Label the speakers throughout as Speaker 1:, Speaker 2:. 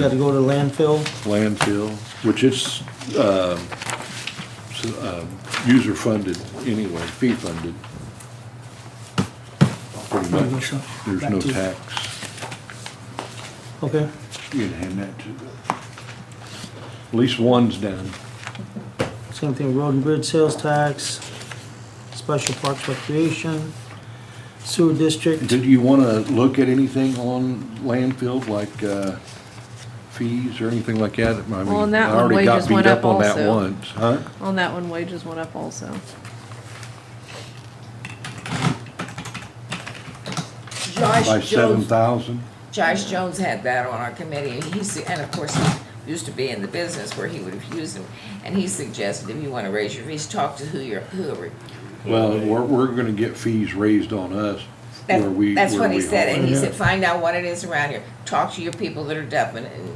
Speaker 1: Got to go to landfill?
Speaker 2: landfill, which is um, s- um, user-funded anyway, fee-funded. Pretty much, there's no tax.
Speaker 1: Okay,
Speaker 2: You can hand that to, at least one's done.
Speaker 1: same thing, road and bridge sales tax, special parks recreation, sewer district.
Speaker 2: Did you want to look at anything on landfill, like uh, fees or anything like that? I mean,
Speaker 3: Well, and that
Speaker 2: I
Speaker 3: one
Speaker 2: already
Speaker 3: way
Speaker 2: got
Speaker 3: just
Speaker 2: beat
Speaker 3: went up
Speaker 2: on that
Speaker 3: also.
Speaker 2: once, Huh?
Speaker 3: On that one, wages went up also.
Speaker 2: By
Speaker 4: Josh
Speaker 2: seven
Speaker 4: Jones,
Speaker 2: thousand?
Speaker 4: Josh Jones had that on our committee, and he's, and of course, he used to be in the business where he would have used them, and he suggested if you wanna raise your fees, talk to who you're, whoever.
Speaker 2: Well, we're, we're gonna get fees raised on us where we.
Speaker 4: That, that's
Speaker 2: where
Speaker 4: what he
Speaker 2: we
Speaker 4: said,
Speaker 2: are.
Speaker 4: and he said, find out what it is around here, talk to your people that are dumping, it," and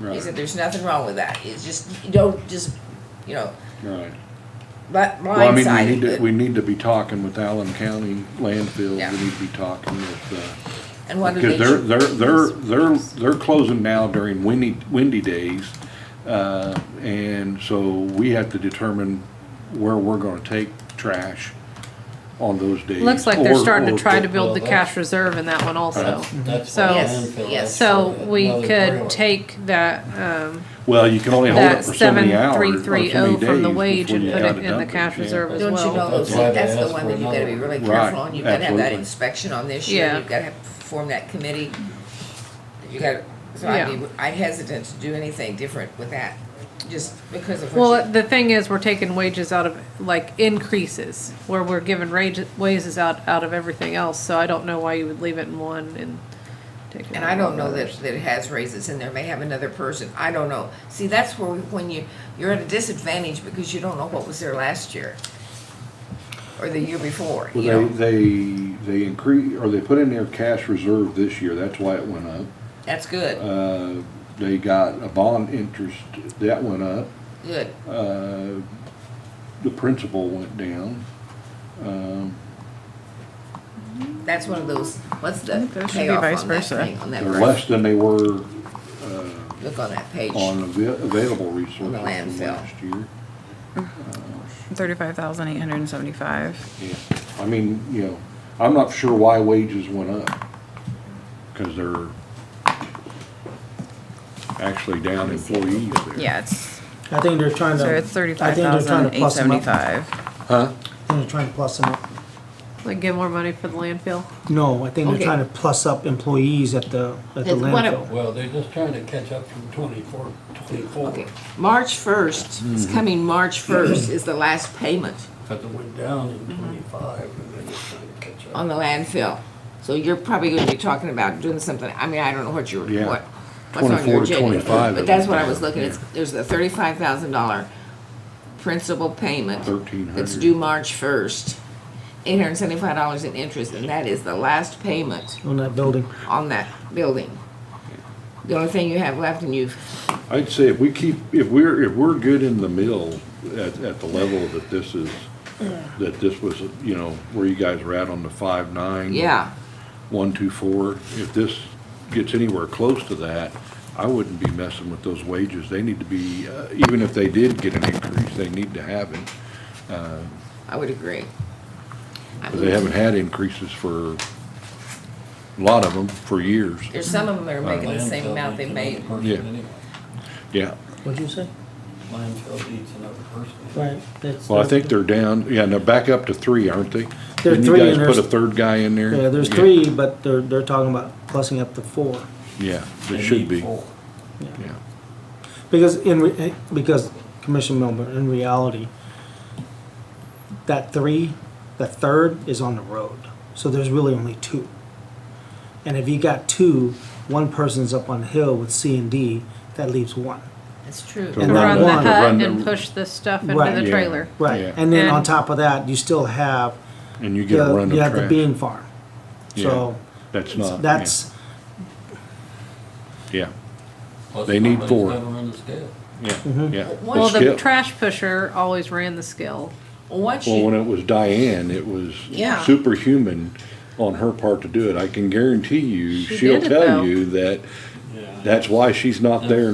Speaker 4: he
Speaker 2: Right.
Speaker 4: said, there's nothing wrong with that, it's just, you don't just, you know,
Speaker 2: Right.
Speaker 4: but
Speaker 2: Well, I mean, we
Speaker 4: blindsided.
Speaker 2: need to,
Speaker 4: but-
Speaker 2: we need to be talking with Allen County landfill.
Speaker 4: Yeah.
Speaker 2: We need to be talking with,
Speaker 4: And
Speaker 2: uh,
Speaker 4: what do
Speaker 2: because
Speaker 4: they?
Speaker 2: they're, they're, they're, they're, they're closing now during windy, windy days. Uh, and so we have to determine where we're gonna take trash on those days.
Speaker 3: Looks like they're
Speaker 2: or-
Speaker 3: starting
Speaker 2: or-
Speaker 3: to try to
Speaker 5: well,
Speaker 3: build the
Speaker 5: that's-
Speaker 3: cash reserve in that one also.
Speaker 5: That's
Speaker 3: So-
Speaker 5: why
Speaker 4: Yes,
Speaker 5: landfill,
Speaker 4: yes.
Speaker 5: that's
Speaker 3: So
Speaker 5: why
Speaker 3: we
Speaker 5: another
Speaker 3: could
Speaker 5: grant.
Speaker 3: take that, um,
Speaker 2: Well, you can only hold
Speaker 3: that
Speaker 2: it for so many
Speaker 3: seven
Speaker 2: hours.
Speaker 3: three
Speaker 2: or so
Speaker 3: three
Speaker 2: many
Speaker 3: oh from the
Speaker 2: days
Speaker 3: wage
Speaker 2: before
Speaker 3: and
Speaker 2: you
Speaker 3: put
Speaker 2: gotta
Speaker 3: it in the
Speaker 2: dump
Speaker 3: cash
Speaker 2: yeah.
Speaker 3: reserve as
Speaker 4: Don't you
Speaker 3: well.
Speaker 4: know,
Speaker 5: That's
Speaker 4: see,
Speaker 5: why they
Speaker 4: that's the
Speaker 5: asked
Speaker 4: one
Speaker 5: for
Speaker 4: that you gotta be
Speaker 5: another
Speaker 4: really
Speaker 2: one.
Speaker 4: careful
Speaker 2: Right,
Speaker 4: on, you've gotta have that
Speaker 2: absolutely.
Speaker 4: inspection on this year,
Speaker 3: Yeah.
Speaker 4: you've gotta have, form that committee. You gotta, so I'd be, I'd hesitant to do anything different with that, just because of what
Speaker 3: Well,
Speaker 4: you.
Speaker 3: the thing is, we're taking wages out of, like, increases, where we're giving rage, wages out, out of everything else, so I don't know why you would leave it in one and take it
Speaker 4: And
Speaker 3: out
Speaker 4: I
Speaker 3: of
Speaker 4: don't know that,
Speaker 3: others.
Speaker 4: that it has raises in there, may have another person, I don't know. See, that's where, we- when you, you're at a disadvantage because you don't know what was there last year. Or the year before, you
Speaker 2: Well,
Speaker 4: know,
Speaker 2: they, they, they increase, or they put in their cash reserve this year, that's why it went up.
Speaker 4: that's good,
Speaker 2: Uh, they got a bond interest, that went up.
Speaker 4: good.
Speaker 2: Uh, the principal went down. Um,
Speaker 4: That's one of those, what's the
Speaker 3: think there should be
Speaker 4: payoff
Speaker 3: vice
Speaker 4: on that
Speaker 3: versa.
Speaker 4: thing, on that,
Speaker 2: they're
Speaker 4: graph?
Speaker 2: less than they were, uh,
Speaker 4: look on that page.
Speaker 2: on avai- available resources from
Speaker 4: Landfill.
Speaker 2: last year.
Speaker 6: Thirty-five thousand eight hundred and seventy-five.
Speaker 2: Yeah, I mean, you know, I'm not sure why wages went up, cause they're actually down employees there.
Speaker 6: Yeah, it's,
Speaker 1: I think they're trying to.
Speaker 6: so it's thirty-five thousand eight seventy-five.
Speaker 2: Huh?
Speaker 1: I think they're trying to plus them up.
Speaker 3: Like, give more money for the landfill.
Speaker 1: No, I think they're
Speaker 4: Okay.
Speaker 1: trying to plus up employees at the, at the
Speaker 4: It's one of-
Speaker 1: landfill.
Speaker 5: Well, they're just trying to catch up from twenty-four, twenty-four,
Speaker 4: Okay, March first, it's
Speaker 2: Hmm.
Speaker 4: coming March first is the last payment
Speaker 5: because it went down in twenty-five, and they're just trying to catch
Speaker 4: Mm-hmm. on
Speaker 5: up.
Speaker 4: the landfill. So you're probably gonna be talking about doing something, I mean, I don't know what your,
Speaker 2: Yeah.
Speaker 4: what, what's on
Speaker 2: 24 to
Speaker 4: your agenda.
Speaker 2: 25
Speaker 4: But that's what I
Speaker 2: it
Speaker 4: was
Speaker 2: was.
Speaker 4: looking at, there's a thirty-five thousand dollar principal payment. That's
Speaker 2: 1,300.
Speaker 4: due March first, eight hundred and seventy-five dollars in interest, and that is the last payment
Speaker 1: On that building.
Speaker 4: on that building. The only thing you have left and you've
Speaker 2: I'd say if we keep, if we're, if we're good in the middle at, at the level that this is, that this was, you know, where you guys were at on the five nine.
Speaker 4: Yeah,
Speaker 2: One, two, four, if this gets anywhere close to that, I wouldn't be messing with those wages. They need to be, uh, even if they did get an increase, they need to have it.
Speaker 4: I would agree. I
Speaker 2: 'cause they haven't had increases for, a lot of them, for years.
Speaker 4: There's some of them that are making the same
Speaker 5: Landfill
Speaker 4: amount they
Speaker 5: needs
Speaker 4: made.
Speaker 5: another person
Speaker 2: Yeah.
Speaker 5: anyway.
Speaker 2: Yeah.
Speaker 1: What'd you say?
Speaker 5: Landfill needs another person.
Speaker 1: Right. that's-
Speaker 2: Well, I think they're down, yeah, and they're back up to three, aren't they?
Speaker 1: They're
Speaker 2: Didn't
Speaker 1: three
Speaker 2: You
Speaker 1: and
Speaker 2: guys put a
Speaker 1: there's-
Speaker 2: third guy in there?
Speaker 1: Yeah, there's three, but they're, they're talking about plussing up to four.
Speaker 2: Yeah,
Speaker 5: They
Speaker 2: they should
Speaker 5: need
Speaker 2: be,
Speaker 5: four.
Speaker 2: yeah.
Speaker 1: Because in, re- eh, because Commissioner Milburn, in reality, that three, the third is on the road. So there's really only two. And if you got two, one person's up on the hill with C and D, that leaves one.
Speaker 4: That's true.
Speaker 2: So
Speaker 1: And
Speaker 3: To
Speaker 1: that
Speaker 3: run the
Speaker 1: one-
Speaker 3: hut
Speaker 2: Run
Speaker 3: and
Speaker 2: the-
Speaker 3: push the stuff into
Speaker 1: Right.
Speaker 3: the
Speaker 2: Yeah.
Speaker 3: trailer.
Speaker 1: Right,
Speaker 2: Yeah.
Speaker 1: and then on
Speaker 3: And-
Speaker 1: top of that, you still have,
Speaker 2: And you
Speaker 1: you
Speaker 2: get a run
Speaker 1: have
Speaker 2: of
Speaker 1: you have the
Speaker 2: trash.
Speaker 1: bean farm.
Speaker 2: Yeah.
Speaker 1: So
Speaker 2: That's not. yeah,
Speaker 1: that's,
Speaker 2: Yeah,
Speaker 5: Plus
Speaker 2: They need
Speaker 5: somebody's
Speaker 2: four.
Speaker 5: gotta run the scale.
Speaker 2: yeah,
Speaker 1: Mm-hmm.
Speaker 2: yeah.
Speaker 4: Well,
Speaker 3: Well, the
Speaker 2: skip.
Speaker 3: trash pusher always ran the skill.
Speaker 4: Once
Speaker 2: Well, when
Speaker 4: you,
Speaker 2: it was Diane, it was
Speaker 4: Yeah.
Speaker 2: superhuman on her part to do it. I can guarantee you,
Speaker 3: She
Speaker 2: she'll
Speaker 3: did it, though.
Speaker 2: tell you that
Speaker 5: Yeah.
Speaker 2: That's why she's not there